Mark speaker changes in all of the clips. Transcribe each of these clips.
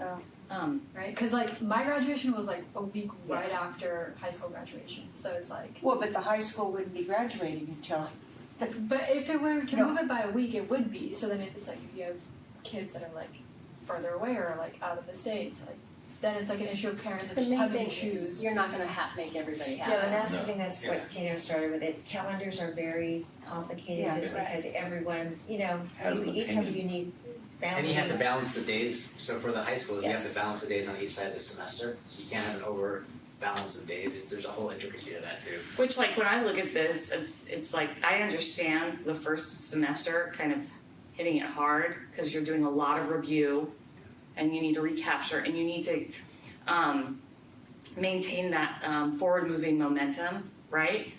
Speaker 1: Oh.
Speaker 2: Um,
Speaker 1: Right.
Speaker 2: Because like my graduation was like a week right after high school graduation, so it's like.
Speaker 3: Well, but the high school wouldn't be graduating until,
Speaker 2: But if it were to
Speaker 3: No.
Speaker 2: move it by a week, it would be. So then if it's like if you have kids that are like further away or like out of the states, like then it's like an issue of parents
Speaker 1: The
Speaker 2: of how
Speaker 1: main
Speaker 2: do we
Speaker 1: thing is
Speaker 2: choose.
Speaker 1: you're not gonna ha- make everybody happy.
Speaker 4: No, and that's the
Speaker 5: No.
Speaker 4: thing, that's
Speaker 5: Yeah.
Speaker 4: what Tina started with, it, calendars are very complicated,
Speaker 3: Yeah.
Speaker 4: just
Speaker 2: Right.
Speaker 4: because everyone, you know,
Speaker 5: Has
Speaker 4: you-
Speaker 5: an
Speaker 4: each of you
Speaker 5: opinion.
Speaker 4: need
Speaker 6: And
Speaker 4: family.
Speaker 6: you have to balance the days, so for the high schools, you have
Speaker 4: Yes.
Speaker 6: to balance the days on each side of the semester, so you can't have an over balance of days, it's, there's a whole intricacy to that too.
Speaker 7: Which like when I look at this, it's it's like I understand the first semester kind of hitting it hard because you're doing a lot of review and you need to recapture and you need to um, maintain that um, forward moving momentum, right?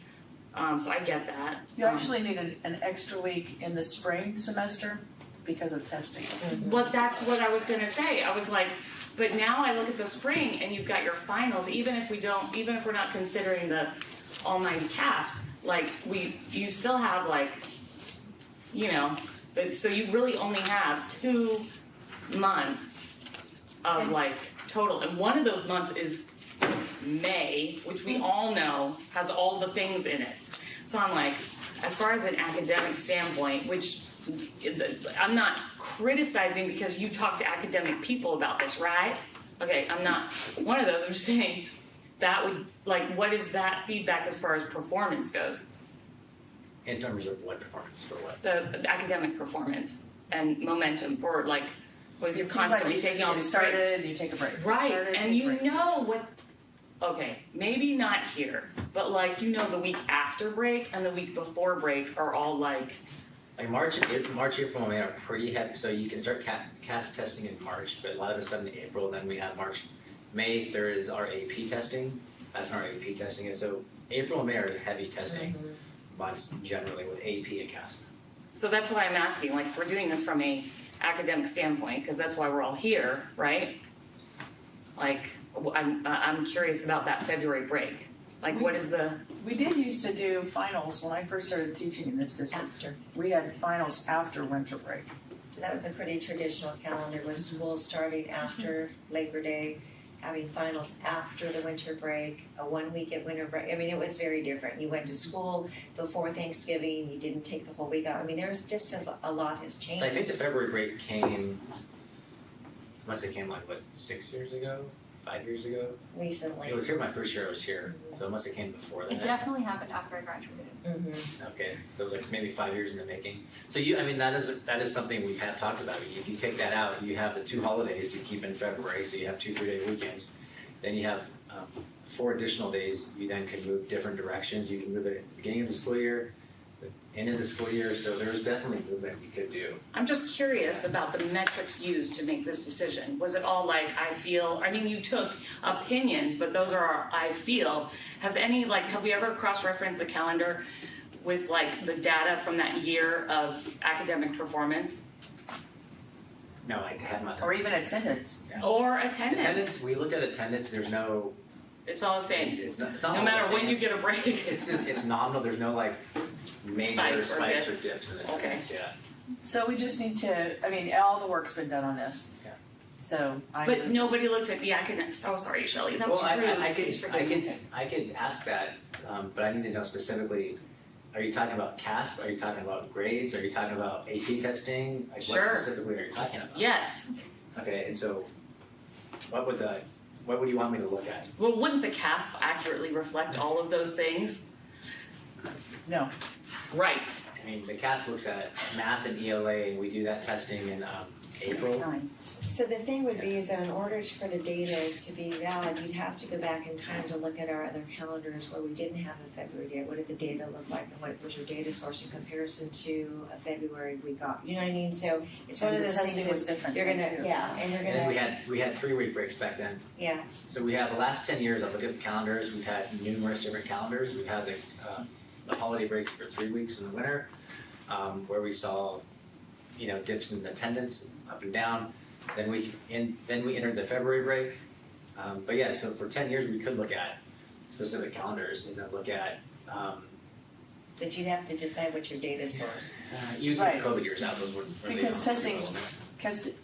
Speaker 7: Um, so I get that.
Speaker 8: You
Speaker 7: Um,
Speaker 8: actually need an, an extra week in the spring semester because of testing.
Speaker 7: But that's what I was gonna say. I was like, but now I look at the spring and you've got your finals, even if we don't even if we're not considering the almighty cast, like we you still have like you know, but so you really only have two months of like total and one of those months is May, which we all know has all the things in it. So I'm like, as far as an academic standpoint, which I'm not criticizing because you talk to academic people about this, right? Okay, I'm not one of those. I'm just saying that would like what is that feedback as far as performance goes,
Speaker 6: In terms of what performance for what,
Speaker 7: the academic performance and momentum forward, like with you
Speaker 8: It seems like
Speaker 7: constantly
Speaker 8: you just
Speaker 7: taking all
Speaker 8: get
Speaker 7: these breaks.
Speaker 8: started and you take a break.
Speaker 7: Right,
Speaker 8: Started,
Speaker 7: and
Speaker 8: take
Speaker 7: you
Speaker 8: a break.
Speaker 7: know what. Okay, maybe not here, but like you know, the week after break and the week before break are all like
Speaker 6: like March, and April, March, April, and May are pretty heavy, so you can start ca- CASP testing in March, but a lot of it's done in April, and then we have March. May third is our AP testing, that's when our AP testing is, so April and May are heavy testing months generally with AP and CASP.
Speaker 7: So that's why I'm asking, like, if we're doing this from a academic standpoint, because that's why we're all here, right? Like, w- I'm, I- I'm curious about that February break. Like, what is the,
Speaker 8: We did used to do finals when I first started teaching in this district.
Speaker 4: After,
Speaker 8: We had finals after winter break.
Speaker 4: so that was a pretty traditional calendar, was schools starting after Labor Day, having finals after the winter break, a one week at winter break, I mean, it was very different, you went to school before Thanksgiving, you didn't take the whole week off, I mean, there's just a, a lot has changed.
Speaker 6: I think the February break came, unless it came like what, six years ago, five years ago?
Speaker 4: Recently.
Speaker 6: It was here my first year I was here, so it must have came before
Speaker 2: It
Speaker 6: that.
Speaker 2: definitely happened after I graduated.
Speaker 4: Mhm.
Speaker 6: Okay, so it was like maybe five years in the making. So you, I mean, that is, that is something we have talked about. If you take that out, you have the two holidays you keep in February, so you have two three-day weekends. Then you have um, four additional days, you then can move different directions. You can move it at the beginning of the school year, the end of the school year, so there's definitely movement we could do.
Speaker 7: I'm just curious about the metrics used to make this decision. Was it all like, I feel, I mean, you took opinions, but those are our, I feel. Has any, like, have we ever cross-referenced the calendar with like the data from that year of academic performance
Speaker 6: No, I have not.
Speaker 8: Or even attendance.
Speaker 7: or attendance?
Speaker 6: Attendance, we looked at attendance, there's no,
Speaker 7: It's all the same.
Speaker 6: it's, it's not, it's not
Speaker 7: No
Speaker 6: all
Speaker 7: matter
Speaker 6: the same.
Speaker 7: when you get a break,
Speaker 6: It's just, it's nominal, there's no like
Speaker 7: Spike
Speaker 6: major
Speaker 7: or
Speaker 6: spikes or dips in attendance, yeah.
Speaker 8: So we just need to, I mean, all the work's been done on this.
Speaker 6: Yeah.
Speaker 8: So I.
Speaker 7: But nobody looked at the academics. Oh, sorry, Shelley. That
Speaker 6: Well,
Speaker 7: was
Speaker 6: I,
Speaker 7: rude.
Speaker 6: I, I could,
Speaker 7: Please
Speaker 6: I
Speaker 7: forgive me.
Speaker 6: could, I could ask that, um, but I need to know specifically, are you talking about CASP, are you talking about grades, are you talking about AP testing? Like what
Speaker 7: Sure.
Speaker 6: specifically are you talking about?
Speaker 7: Yes.
Speaker 6: Okay, and so what would the, what would you want me to look at?
Speaker 7: Well, wouldn't the CASP accurately reflect all of those things?
Speaker 8: No.
Speaker 7: Right.
Speaker 6: I mean, the CASP looks at math and ELA and we do that testing in, um, April.
Speaker 4: So the thing would be is that in order for the data to be valid, you'd have to go back in time to look at our other calendars where we didn't have a February date. What did the data look like and what was your data source in comparison to a February we got? You know what I mean? So it's one of
Speaker 8: And the
Speaker 4: those things
Speaker 8: testing was
Speaker 4: that's,
Speaker 8: different
Speaker 4: you're
Speaker 8: then,
Speaker 4: gonna,
Speaker 8: too.
Speaker 4: yeah, and you're
Speaker 6: And then we
Speaker 4: gonna,
Speaker 6: had, we had three week breaks back then.
Speaker 4: yeah,
Speaker 6: So we have the last ten years, I look at the calendars, we've had numerous different calendars, we've had the uh the holiday breaks for three weeks in the winter. Um where we saw, you know, dips in attendance up and down, then we in then we entered the February break. Um but yeah, so for ten years, we could look at specific calendars and then look at um
Speaker 4: that you'd have to decide what your data source.
Speaker 6: uh, you took
Speaker 8: Right.
Speaker 6: COVID years out, those were really.
Speaker 8: Because
Speaker 6: not-
Speaker 8: testing's- Because